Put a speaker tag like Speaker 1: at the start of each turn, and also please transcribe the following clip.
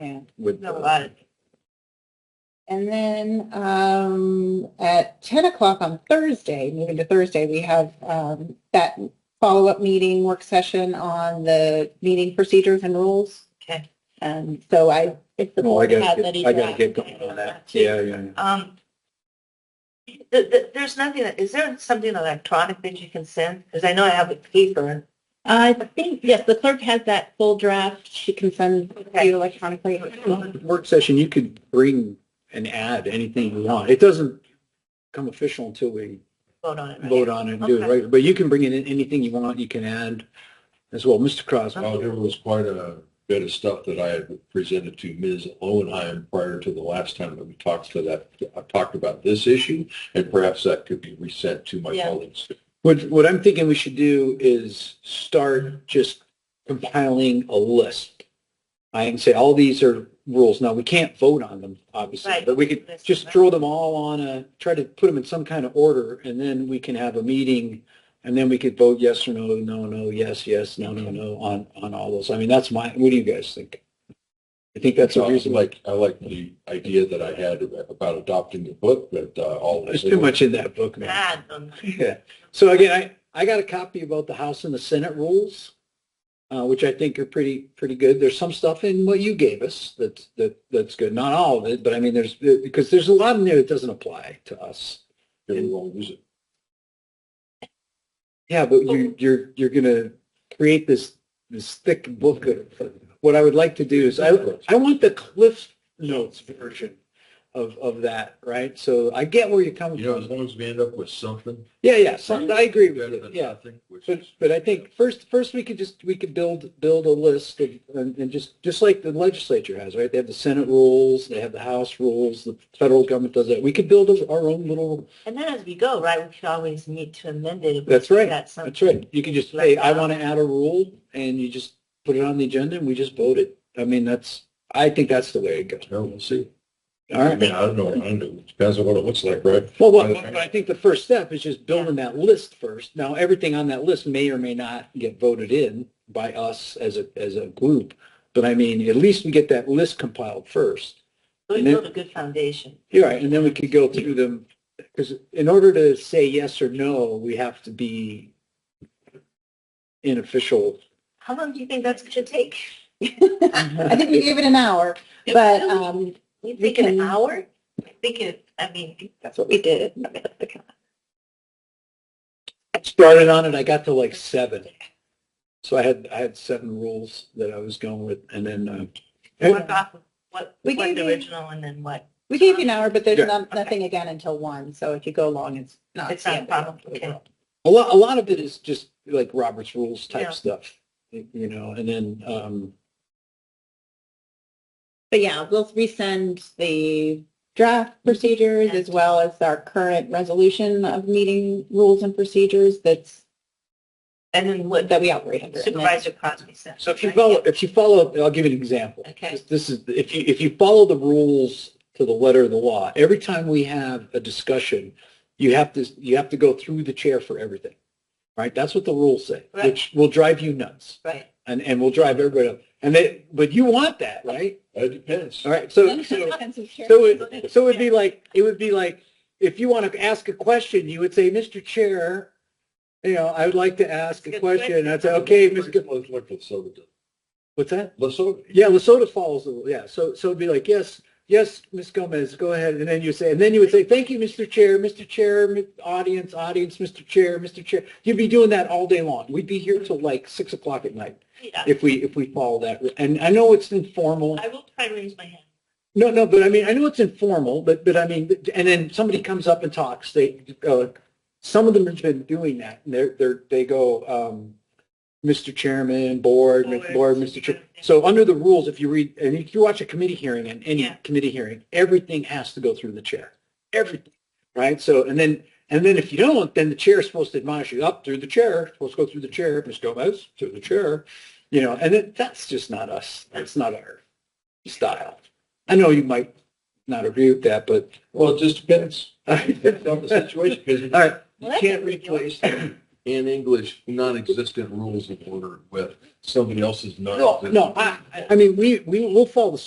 Speaker 1: yeah.
Speaker 2: with.
Speaker 1: No,
Speaker 2: the-
Speaker 1: about it. And then um, at 10 o'clock on Thursday, moving to Thursday, we have um, that follow-up meeting, work session on the meeting procedures and rules.
Speaker 3: Okay.
Speaker 1: And so I, if the
Speaker 2: Well, I
Speaker 1: board has
Speaker 2: gotta
Speaker 1: any.
Speaker 2: get, I gotta
Speaker 1: draft-
Speaker 2: get going on that. Yeah, yeah, yeah.
Speaker 3: Um, th- th- there's nothing, that- is there something electronic that you can send? Because I know I have a paper.
Speaker 1: I think, yes, the clerk has that full draft. She can send
Speaker 3: Okay.
Speaker 1: you electronically.
Speaker 2: Work session, you could bring and add anything you want. It doesn't come official until we
Speaker 3: Vote on it. right?
Speaker 2: vote on it and do it,
Speaker 3: Okay.
Speaker 2: right? But you can bring in anything you want, you can add as well. Mr.
Speaker 4: Well,
Speaker 2: Crosby,
Speaker 4: there was quite a bit of stuff that I had presented to Ms. Lowenheim prior to the last time that we talked to that, uh, talked about this issue, and perhaps that could be resent to my
Speaker 3: Yeah.
Speaker 4: colleagues.
Speaker 2: what, what I'm thinking we should do is start just compiling a list. I can say all these are rules. Now, we can't vote on them, obviously,
Speaker 3: Right.
Speaker 2: but we could just throw them all on a, try to put them in some kind of order, and then we can have a meeting, and then we could vote yes or no, no, no, yes, yes, no, no, no, on, on all those. I mean, that's my, what do you guys think? I think that's a
Speaker 4: So I
Speaker 2: reasonable,
Speaker 4: like, I like the idea that I had about adopting the book, but uh, all.
Speaker 2: there's too much in that book, man.
Speaker 3: Bad, um,
Speaker 2: Yeah. So again, I, I got a copy about the House and the Senate rules, uh, which I think are pretty, pretty good. There's some stuff in what you gave us that's, that, that's good. Not all of it, but I mean, there's, because there's a lot in there that doesn't apply to us.
Speaker 4: We won't use it.
Speaker 2: Yeah, but you, you're, you're gonna create this, this thick book of, what I would like to do is, I, I want the Cliff Notes version of, of that, right? So I get where you're coming
Speaker 4: You know, as
Speaker 2: from.
Speaker 4: long as we end up with something.
Speaker 2: Yeah, yeah, some- I agree with
Speaker 4: better
Speaker 2: you,
Speaker 4: than
Speaker 2: yeah.
Speaker 4: nothing, which
Speaker 2: But,
Speaker 4: is-
Speaker 2: but I think first, first we could just, we could build, build a list of, and, and just, just like the legislature has, right? They have the Senate rules, they have the House rules, the federal government does that. We could build our own little,
Speaker 3: And then as we go, right, we could always need to amend it. if we
Speaker 2: That's right.
Speaker 3: got something.
Speaker 2: that's right. You could just say, I want to add a rule and you just put it on the agenda and we just vote it. I mean, that's, I think that's the way it goes.
Speaker 4: No, we'll see.
Speaker 2: All
Speaker 4: I
Speaker 2: right.
Speaker 4: mean, I don't know, I don't know, It depends on what it looks like, right?
Speaker 2: Well, what, but I think the first step is just building that list first. Now, everything on that list may or may not get voted in by us as a, as a group. But I mean, at least we get that list compiled first.
Speaker 3: We
Speaker 2: And then-
Speaker 3: build a good foundation.
Speaker 2: You're right, and then we could go through them, because in order to say yes or no, we have to be in official.
Speaker 3: How long do you think that's going to take?
Speaker 1: I think we gave it an hour, but um,
Speaker 3: You
Speaker 1: We
Speaker 3: think an
Speaker 1: can-
Speaker 3: hour? I think it, I mean,
Speaker 1: that's what we did.
Speaker 2: Started on it, I got to like seven. So I had, I had seven rules that I was going with, and then, uh,
Speaker 3: work off of what,
Speaker 1: We
Speaker 3: what
Speaker 1: gave
Speaker 3: the
Speaker 1: you-
Speaker 3: original and then what.
Speaker 1: We gave you an hour, but there's
Speaker 2: Yeah.
Speaker 1: not, nothing again until one. So if you go long, it's not.
Speaker 3: It's not a problem, okay.
Speaker 2: A lot, a lot of it is just like Robert's rules
Speaker 3: Yeah.
Speaker 2: type stuff, you know, and then, um,
Speaker 1: But yeah, we'll resend the draft procedures as well as our current resolution of meeting rules and procedures that's,
Speaker 3: And then what
Speaker 1: that we operate under. And then-
Speaker 3: Supervisor Crosby said.
Speaker 2: So if you follow, if you follow, I'll give you an example.
Speaker 3: Okay.
Speaker 2: This- This is, if you, if you follow the rules to the letter of the law, every time we have a discussion, you have to, you have to go through the chair for everything, right? That's what the rules say,
Speaker 3: Right.
Speaker 2: which will drive you nuts
Speaker 3: Right.
Speaker 2: and, and will drive everybody up. And they, but you want that, right?
Speaker 4: Uh, It depends.
Speaker 2: All right, so, so. So it, so it'd be like, it would be like, if you want to ask a question, you would say, Mr. Chair, you know, I would like to ask a
Speaker 3: Good
Speaker 2: question.
Speaker 3: question.
Speaker 2: I'd say, okay, Ms. Good,
Speaker 4: Let's look at soda.
Speaker 2: what's that?
Speaker 4: Lesotho.
Speaker 2: Yeah, Lesota Falls, yeah. So, so it'd be like, yes, yes, Ms. Gomez, go ahead. And then you say, and then you would say, thank you, Mr. Chair, Mr. Chair, mi- audience, audience, Mr. Chair, Mr. Chair. You'd be doing that all day long. We'd be here till like six o'clock at night
Speaker 3: Yeah,
Speaker 2: if we, if we follow that. And I know it's informal.
Speaker 3: I will try to raise my hand.
Speaker 2: No, no, but I mean, I know it's informal, but, but I mean, and then somebody comes up and talks, they, uh, some of them have been doing that, and they're, they're, they go, um, Mr. Chairman,
Speaker 3: Oh,
Speaker 2: Board, Mr. Board, Mr. Chair. So under the rules, if you read, and if you watch a committee hearing, and any
Speaker 3: Yeah.
Speaker 2: committee hearing, everything has to go through the chair, everything, right? So, and then, and then if you don't, then the chair is supposed to admonish you up through the chair, supposed to go through the chair, Ms. Gomez, through the chair, you know, and it- that's just not us, that's not our style. I know you might not agree with that, but.
Speaker 4: Well, it just depends. Depends on the situation, because
Speaker 2: All right,
Speaker 3: Well,
Speaker 4: you
Speaker 3: that's
Speaker 4: can't
Speaker 3: a good
Speaker 4: replace in English non-existent rules of order with somebody else's
Speaker 2: no,
Speaker 4: non-existent.
Speaker 2: no, I, I- I mean, we, we will follow the